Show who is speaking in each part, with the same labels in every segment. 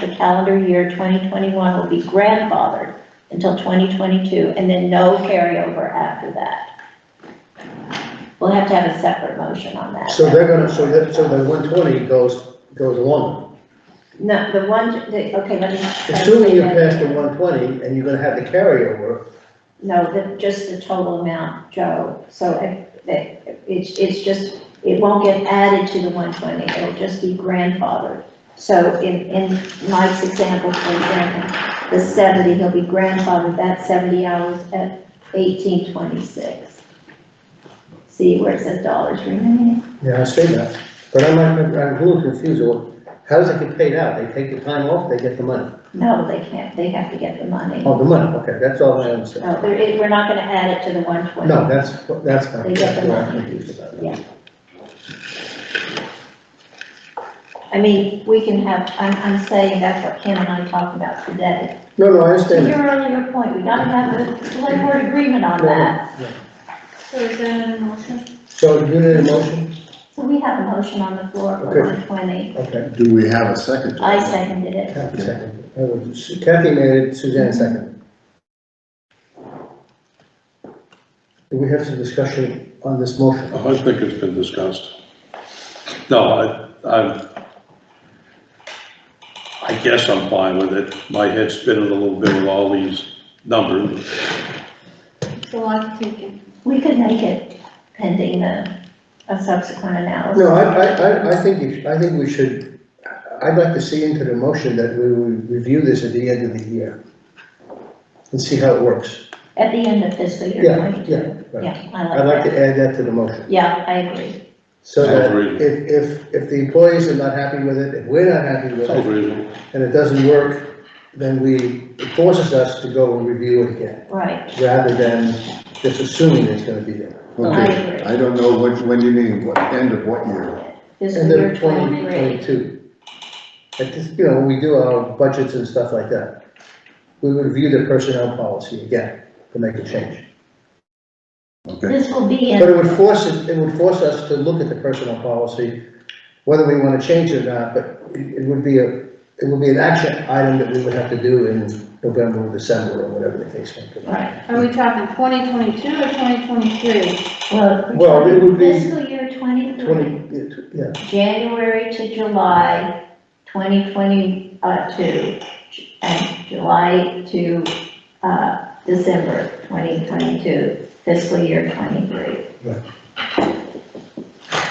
Speaker 1: for calendar year 2021 will be grandfathered until 2022, and then no carryover after that. We'll have to have a separate motion on that.
Speaker 2: So they're gonna, so that, so the one twenty goes, goes along.
Speaker 1: No, the one, the, okay, let me.
Speaker 2: Assuming you pass the one twenty and you're gonna have the carryover,
Speaker 1: No, the, just the total amount, Joe, so if, that, it's, it's just, it won't get added to the one twenty, it'll just be grandfathered. So in, in Mike's example, for example, the seventy, he'll be grandfathered that seventy hours at eighteen twenty-six. See where it says dollars remaining?
Speaker 2: yeah, I say that, but I'm, not- I'm a little confused, Well, how does it get paid out? They take the time off, they get the money,
Speaker 1: No, they can't, they have to get the money.
Speaker 2: oh, the money, okay, that's all I understand.
Speaker 1: No, there, it- we're not gonna add it to the one twenty.
Speaker 2: No, that's, that's fine.
Speaker 1: Oh, They get the
Speaker 2: That's what I'm
Speaker 1: money.
Speaker 2: confused about.
Speaker 1: Yeah. I mean, we can have, I'm, I'm saying that's what Kim and I talked about today.
Speaker 2: No, no, I
Speaker 1: To
Speaker 2: understand.
Speaker 1: your earlier point, we gotta have a select board agreement on that.
Speaker 3: So is that an motion?
Speaker 2: So you need a motion?
Speaker 1: So we have a motion on the floor
Speaker 2: Okay.
Speaker 1: for one twenty.
Speaker 2: Okay.
Speaker 4: Do we have a second?
Speaker 1: I seconded it.
Speaker 2: Kathy seconded. That was- Kathy made it, Suzanne seconded. Do we have some discussion on this motion?
Speaker 5: Oh, I think it's been discussed. No, I, I'm, I guess I'm fine with it. My head's spinning a little bit with all these numbers.
Speaker 3: It's a lot to take in.
Speaker 1: We could make it pending the, a subsequent analysis.
Speaker 2: No, I, I, I, I think, you should- I think we should, I'd like to see into the motion that we will review this at the end of the year. And see how it works.
Speaker 1: At the end of fiscal year
Speaker 2: Yeah,
Speaker 1: twenty-two.
Speaker 2: yeah, right.
Speaker 1: Yeah, I
Speaker 2: I'd like
Speaker 1: like that.
Speaker 2: to add that to the motion.
Speaker 1: Yeah, I agree.
Speaker 2: So that
Speaker 5: Agreed.
Speaker 2: if, if, if the employees are not happy with it, if we're not happy with
Speaker 5: Sounds
Speaker 2: it,
Speaker 5: reasonable.
Speaker 2: and it doesn't work, then we, it forces us to go and review it again.
Speaker 1: Right,
Speaker 2: rather than just assuming it's gonna be there.
Speaker 1: I
Speaker 4: Okay,
Speaker 1: agree.
Speaker 4: I don't know what, when you mean, what, end of what year?
Speaker 1: fiscal year
Speaker 2: And then twenty
Speaker 1: twenty-three.
Speaker 2: twenty-two. At this, you know, we do our budgets and stuff like that. We review the personnel policy again to make a change.
Speaker 4: Okay,
Speaker 1: This will be in.
Speaker 2: But it would force, it it would force us to look at the personnel policy, whether we wanna change it or not, but it it would be a, it would be an action item that we would have to do in November or December or whatever the case may be.
Speaker 1: Right.
Speaker 3: Are we talking 2022 or 2023?
Speaker 1: Well,
Speaker 2: Well, it would be-
Speaker 1: Fiscal year twenty-three,
Speaker 2: Twenty, yeah, tw- yeah,
Speaker 1: January to July twenty twenty, uh, two, and July to, uh, December twenty twenty-two, fiscal year twenty-three.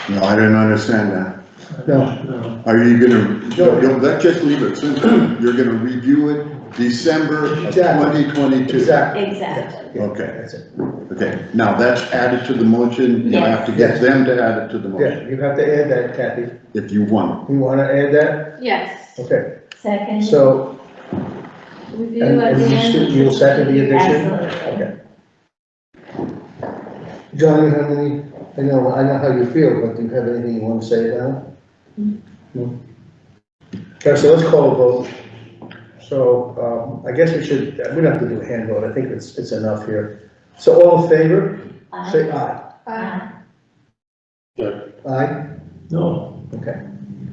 Speaker 4: no, I didn't understand that.
Speaker 2: no,
Speaker 4: Are you gonna,
Speaker 2: No.
Speaker 4: you'll, let, just leave it simple, you're gonna review it December of
Speaker 2: Exactly.
Speaker 4: twenty twenty-two?
Speaker 2: exactly.
Speaker 1: Exactly.
Speaker 2: Yeah,
Speaker 4: Okay.
Speaker 2: That's it.
Speaker 4: Okay, now that's added to the motion, you
Speaker 1: Yes.
Speaker 4: have to get them to add it to the motion,
Speaker 2: Yeah, you have to add that, Kathy.
Speaker 4: if you want.
Speaker 2: You wanna add that?
Speaker 3: Yes.
Speaker 2: Okay,
Speaker 1: Second.
Speaker 2: so,
Speaker 3: Review
Speaker 2: and
Speaker 3: at
Speaker 2: and
Speaker 3: the
Speaker 2: you
Speaker 3: end.
Speaker 2: still- you'll second the addition?
Speaker 1: Absolutely.
Speaker 2: Okay. John, you have any, I know, I know how you feel, but do you have anything you wanna say about it? No? Okay, so let's call a vote. So, um, I guess we should, we don't have to do a hand vote, I think it's, it's enough here. So all in favor,
Speaker 1: Aye.
Speaker 2: say aye.
Speaker 3: Uh,
Speaker 2: Aye? No. Okay,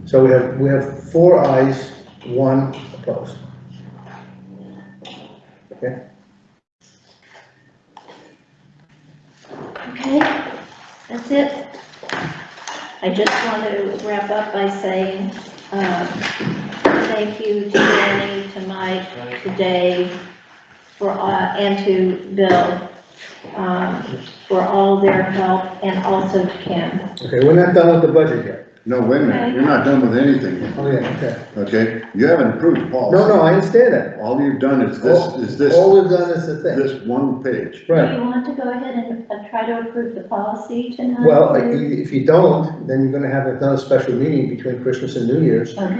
Speaker 2: so we have, we have four ayes, one opposed.
Speaker 1: Okay, that's it. I just want to wrap up by saying, um, thank you to Danny, to Mike, to Dave, for, uh, and to Bill, um, for all their help, and also to Kim.
Speaker 2: Okay, we're not done with the budget yet.
Speaker 4: No, wait a minute, you're not done with anything, yet,
Speaker 2: Oh, yeah, okay.
Speaker 4: okay? You haven't approved policy.
Speaker 2: No, no, I understand that.
Speaker 4: All you've done is this, is this,
Speaker 2: All we've done is the thing.
Speaker 4: this one page.
Speaker 1: Do
Speaker 2: Right.
Speaker 1: you want to go ahead and uh, try to approve the policy tonight?
Speaker 2: Well, if you- if you don't, then you're gonna have another special meeting between Christmas and New Year's.
Speaker 1: Okay,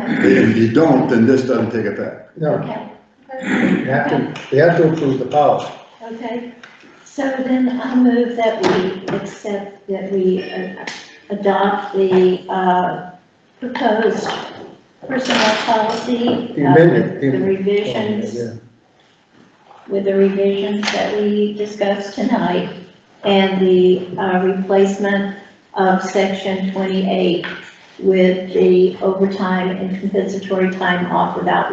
Speaker 4: If you don't, then this doesn't take effect.
Speaker 2: No,
Speaker 1: okay,
Speaker 2: we have to, we have to approve the policy.
Speaker 1: okay. So then I move that we accept, that we uh, adopt the uh, proposed personnel policy.
Speaker 2: The
Speaker 1: uh,
Speaker 2: amendment, the-
Speaker 1: The revisions.
Speaker 2: Yeah.
Speaker 1: with the revisions that we discussed tonight and the uh, replacement of section 28 with the overtime and compensatory time off without